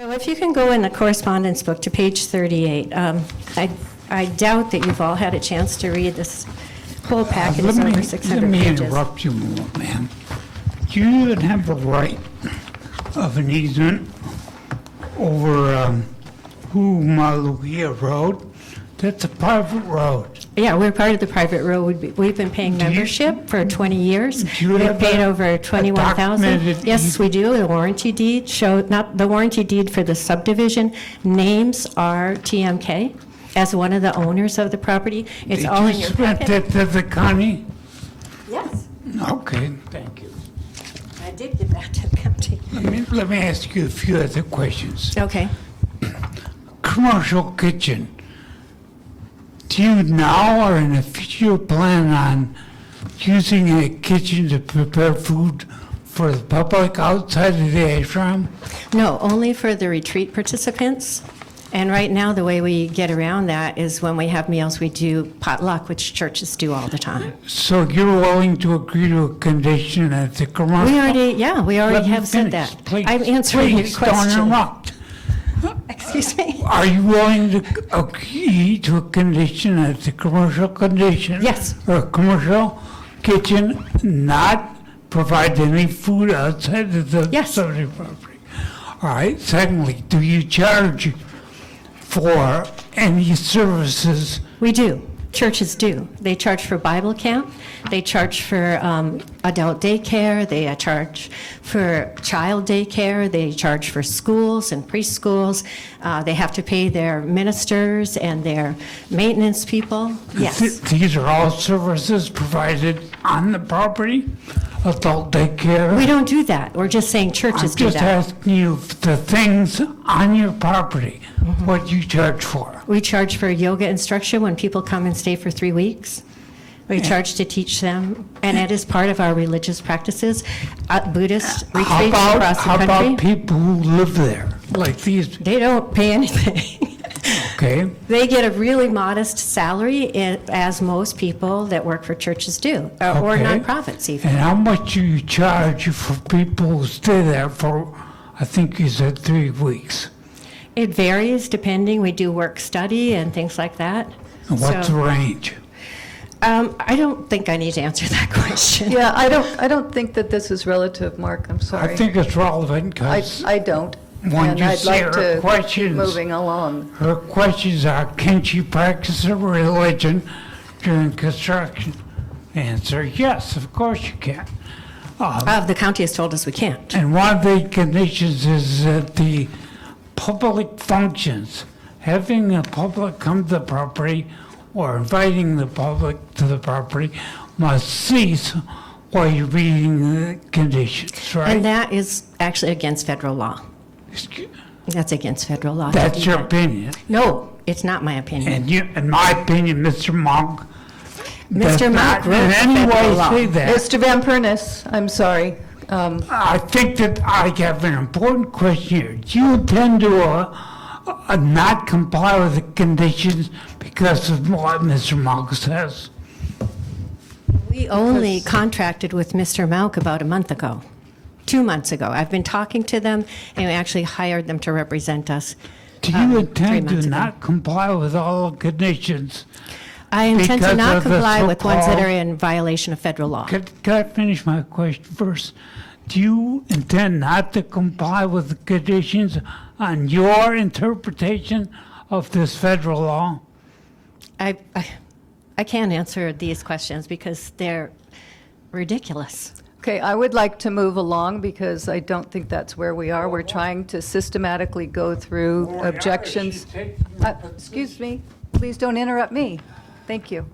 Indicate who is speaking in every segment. Speaker 1: So if you can go in the correspondence book to page 38, um, I I doubt that you've all had a chance to read this whole packet,
Speaker 2: Uh, Let
Speaker 1: it's
Speaker 2: me-
Speaker 1: over 600
Speaker 2: Let me
Speaker 1: pages.
Speaker 2: interrupt you, ma'am. Do you even have the right of an easement over um, Humaluia Road? That's a private road.
Speaker 1: Yeah, we're part of the private road, We- we've been paying
Speaker 2: Do you-
Speaker 1: membership for 20 years.
Speaker 2: Do you
Speaker 1: We've
Speaker 2: have
Speaker 1: paid
Speaker 2: a-
Speaker 1: over
Speaker 2: a
Speaker 1: 21,000.
Speaker 2: documented
Speaker 1: Yes,
Speaker 2: eas-
Speaker 1: we do, the warranty deed show, not, the warranty deed for the subdivision names are TMK as one of the owners of the property. It's all in your
Speaker 2: Did you
Speaker 1: packet.
Speaker 2: submit that to the county?
Speaker 1: Yes,
Speaker 2: Okay, thank you.
Speaker 1: I did give that to the county.
Speaker 2: Let me, let me ask you a few other questions.
Speaker 1: Okay.
Speaker 2: Commercial kitchen, do you now or in the future plan on using a kitchen to prepare food for the public outside of the ashram?
Speaker 1: No, only for the retreat participants. And right now, the way we get around that is when we have meals, we do potluck, which churches do all the time.
Speaker 2: So you're willing to agree to a condition that the commercial?
Speaker 1: We already, yeah, we
Speaker 2: Let
Speaker 1: already
Speaker 2: me
Speaker 1: have said
Speaker 2: finish,
Speaker 1: that.
Speaker 2: please.
Speaker 1: I'm answering your
Speaker 2: Please don't
Speaker 1: question.
Speaker 2: interrupt.
Speaker 1: Excuse me?
Speaker 2: Are you willing to agree to a condition as a commercial condition?
Speaker 1: Yes.
Speaker 2: Or a commercial kitchen not provide any food outside of the
Speaker 1: Yes.
Speaker 2: subject property? All right, secondly, do you charge for any services?
Speaker 1: We do. Churches do. They charge for Bible camp, they charge for um, adult daycare, they uh, charge for child daycare, they charge for schools and preschools. Uh, They have to pay their ministers and their maintenance people.
Speaker 2: Th-
Speaker 1: Yes.
Speaker 2: These are all services provided on the property, adult daycare?
Speaker 1: We don't do that. We're just saying churches
Speaker 2: I'm
Speaker 1: do
Speaker 2: just
Speaker 1: that.
Speaker 2: asking you if the things on your property,
Speaker 1: Mm-hmm.
Speaker 2: what you charge for.
Speaker 1: We charge for yoga instruction when people come and stay for three weeks. We charge to teach them, and it is part of our religious practices. Uh, Buddhist
Speaker 2: How
Speaker 1: retreats
Speaker 2: about-
Speaker 1: across
Speaker 2: How
Speaker 1: the
Speaker 2: about
Speaker 1: country,
Speaker 2: people who live there, like these,
Speaker 1: they don't pay anything.
Speaker 2: okay?
Speaker 1: They get a really modest salary, i- as most people that work for churches do, uh, or
Speaker 2: Okay.
Speaker 1: nonprofits even.
Speaker 2: And how much do you charge for people who stay there for, I think you said three weeks?
Speaker 1: It varies depending, we do work-study and things like that.
Speaker 2: And what's the
Speaker 1: So,
Speaker 2: range?
Speaker 1: um, I don't think I need to answer that question.
Speaker 3: Yeah, I don't, I don't think that this is relative, Mark, I'm sorry.
Speaker 2: I think it's relevant
Speaker 3: I,
Speaker 2: because
Speaker 3: I don't.
Speaker 2: When
Speaker 3: and
Speaker 2: you
Speaker 3: I'd
Speaker 2: see
Speaker 3: like
Speaker 2: her
Speaker 3: to keep
Speaker 2: questions.
Speaker 3: Moving along.
Speaker 2: her questions are, can she practice her religion during construction? The Answer, yes, of course you can.
Speaker 1: Uh, The county has told us we can't.
Speaker 2: And one of the conditions is that the public functions, having the public come to the property or inviting the public to the property must cease while you're reading the conditions,
Speaker 1: And
Speaker 2: right?
Speaker 1: that is actually against federal law. That's against federal law.
Speaker 2: That's your opinion.
Speaker 1: No, it's not my opinion.
Speaker 2: And you, in my opinion, Mr. Monk. does
Speaker 1: Mr. Monk
Speaker 2: not
Speaker 1: wrote
Speaker 2: In
Speaker 1: the
Speaker 2: any
Speaker 1: federal
Speaker 2: way
Speaker 1: law.
Speaker 2: say that.
Speaker 3: Mr. Van Pernis, I'm sorry. Um,
Speaker 2: I think that I have an important question here. Do you intend to uh, uh, not comply with the conditions because of what Mr. Monk says?
Speaker 1: We only contracted with Mr. Malk about a month ago, two months ago. I've been talking to them, and we actually hired them to represent us.
Speaker 2: Do
Speaker 1: um,
Speaker 2: you
Speaker 1: three
Speaker 2: intend
Speaker 1: months
Speaker 2: to
Speaker 1: ago.
Speaker 2: not comply with all the conditions?
Speaker 1: I intend to
Speaker 2: because
Speaker 1: not
Speaker 2: of the
Speaker 1: comply with ones that
Speaker 2: so-called-
Speaker 1: are in violation of federal law.
Speaker 2: Can, can I finish my question first? Do you intend not to comply with the conditions on your interpretation of this federal law?
Speaker 1: I, I, I can't answer these questions because they're ridiculous.
Speaker 3: Okay, I would like to move along because I don't think that's where we are. We're trying to systematically go through objections. Uh, Excuse me, please don't interrupt me. Thank you.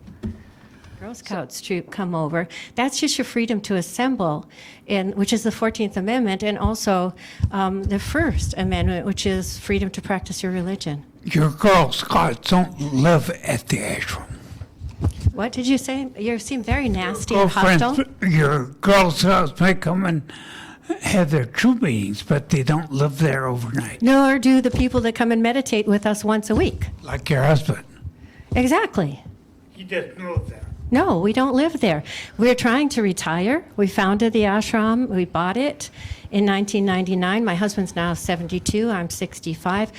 Speaker 1: Girl Scouts troop come over. That's just your freedom to assemble, and which is the Fourteenth Amendment, and also um, the First Amendment, which is freedom to practice your religion.
Speaker 2: Your Girl Scouts don't live at the ashram.
Speaker 1: What did you say? You seem very nasty
Speaker 2: Oh,
Speaker 1: and hostile.
Speaker 2: girlfriends, your Girl Scouts may come and have their troop meetings, but they don't live there overnight,
Speaker 1: Nor do the people that come and meditate with us once a week.
Speaker 2: like your husband.
Speaker 1: Exactly.
Speaker 2: He doesn't live there.
Speaker 1: No, we don't live there. We're trying to retire. We founded the ashram. We bought it in 1999. My husband's now 72. I'm 65.